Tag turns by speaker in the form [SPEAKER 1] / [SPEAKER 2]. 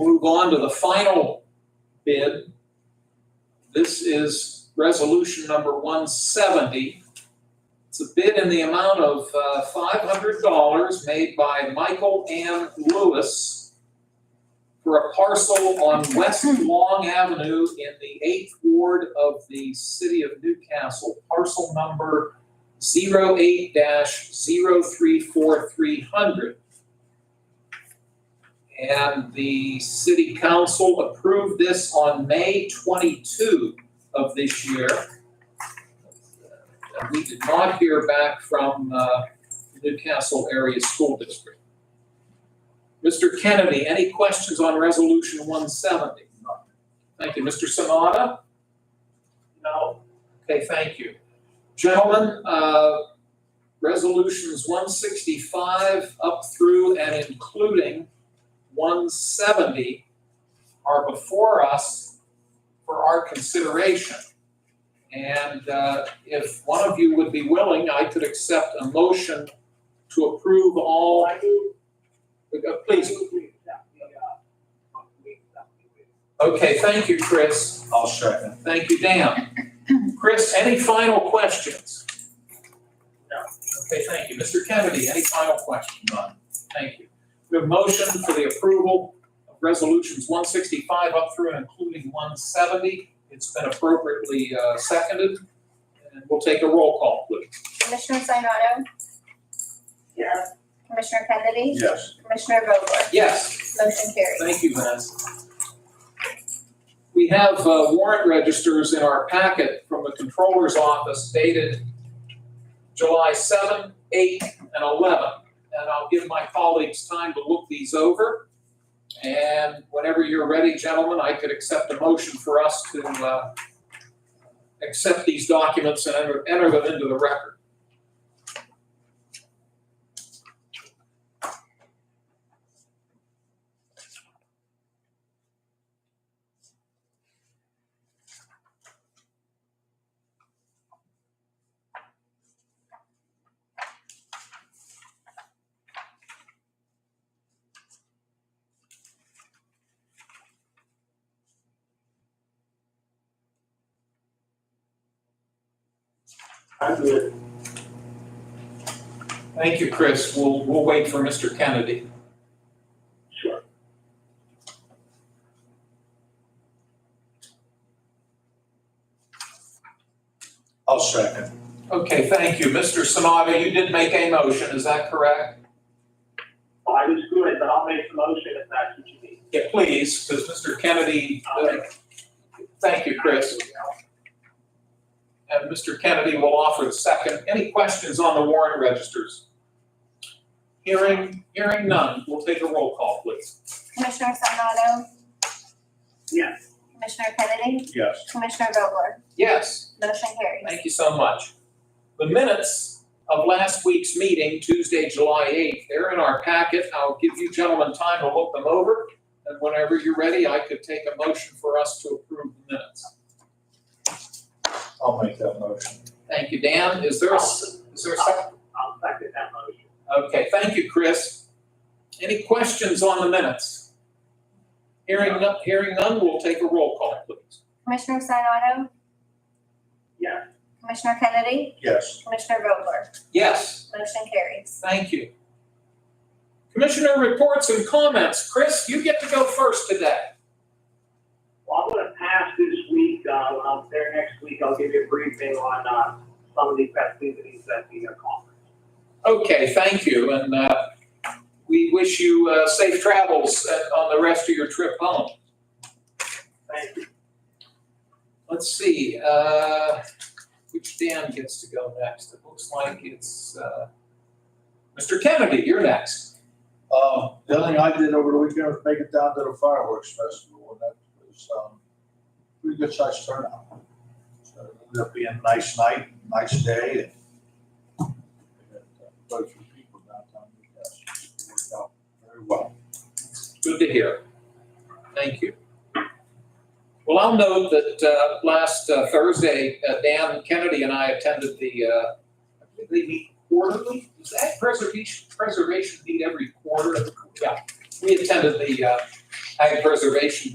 [SPEAKER 1] move on to the final bid. This is resolution number one seventy. It's a bid in the amount of uh, five hundred dollars made by Michael M. Lewis for a parcel on West Long Avenue in the eighth ward of the city of Newcastle, parcel number 8 zero three four three hundred. And the city council approved this on May twenty-two of this year. And we did not hear back from, uh, Newcastle Area School District. Mr. Kennedy, any questions on resolution one seventy? Thank you. Mr. Sanada? No. Okay, thank you. Gentlemen, uh, resolutions one sixty-five up through and including one seventy are before us for our consideration. And uh, if one of you would be willing, I could accept a motion to approve all. Uh, Please. Okay, thank you, Chris.
[SPEAKER 2] I'll second.
[SPEAKER 1] Thank you, Dan. Chris, any final questions? No. Okay, thank you. Mr. Kennedy, any final questions? None. Thank you. We have a motion for the approval of resolutions one sixty-five up through and including one seventy. It's been appropriately uh, seconded, and we'll take a roll call, please.
[SPEAKER 3] Commissioner Sinata?
[SPEAKER 4] Yes.
[SPEAKER 3] Commissioner Kennedy?
[SPEAKER 2] Yes.
[SPEAKER 3] Commissioner Vogler?
[SPEAKER 1] Yes,
[SPEAKER 3] Motion carries.
[SPEAKER 1] thank you, Vanessa. We have uh, warrant registers in our packet from the Controller's Office dated July 7, 8, and 11. And I'll give my colleagues time to look these over. And whenever you're ready, gentlemen, I could accept a motion for us to uh, accept these documents and enter- enter them into the record.
[SPEAKER 4] I do it.
[SPEAKER 1] Thank you, Chris. We'll, we'll wait for Mr. Kennedy.
[SPEAKER 4] Sure.
[SPEAKER 2] I'll second.
[SPEAKER 1] Okay, thank you. Mr. Sanada, you did make a motion, is that correct?
[SPEAKER 4] I was good, but I'll make the motion if that's what you need.
[SPEAKER 1] Yeah, please, because Mr. Kennedy, uh, thank you, Chris. And Mr. Kennedy will offer the second. Any questions on the warrant registers? Hearing, hearing none, we'll take a roll call, please.
[SPEAKER 3] Commissioner Sinata?
[SPEAKER 4] Yes.
[SPEAKER 3] Commissioner Kennedy?
[SPEAKER 2] Yes.
[SPEAKER 3] Commissioner Vogler?
[SPEAKER 1] Yes,
[SPEAKER 3] Motion carries.
[SPEAKER 1] thank you so much. The minutes of last week's meeting, Tuesday, July 8th, they're in our packet. I'll give you gentlemen time to look them over. And whenever you're ready, I could take a motion for us to approve the minutes.
[SPEAKER 2] I'll make that motion.
[SPEAKER 1] Thank you, Dan. Is there a, s- is there a second?
[SPEAKER 4] I'll second that motion.
[SPEAKER 1] Okay, thank you, Chris. Any questions on the minutes? Hearing none, hearing none, we'll take a roll call, please.
[SPEAKER 3] Commissioner Sinata?
[SPEAKER 4] Yes.
[SPEAKER 3] Commissioner Kennedy?
[SPEAKER 2] Yes.
[SPEAKER 3] Commissioner Vogler?
[SPEAKER 1] Yes,
[SPEAKER 3] Motion carries.
[SPEAKER 1] thank you. Commissioner reports and comments. Chris, you get to go first today.
[SPEAKER 4] Well, I'm gonna pass this week, uh, when I'm there next week, I'll give you a briefing on, uh, some of the festivities at the uh, conference.
[SPEAKER 1] Okay, thank you, and uh, we wish you uh, safe travels uh, on the rest of your trip home.
[SPEAKER 4] Thank you.
[SPEAKER 1] Let's see, uh, which Dan gets to go next? It looks like it's, uh, Mr. Kennedy, you're next.
[SPEAKER 2] Um, the other thing I did over the weekend was make it down to the fireworks festival, and that was, um, pretty good sized turnout. So it ended up being a nice night, nice day, and we had, uh, quite a few people downtown Newcastle. It worked out very well.
[SPEAKER 1] Good to hear. Thank you. Well, I'll note that, uh, last uh, Thursday, uh, Dan Kennedy and I attended the, uh, I believe they meet quarterly? Is that preservation, preservation meet every quarter? Yeah. we attended the uh, Ag Preservation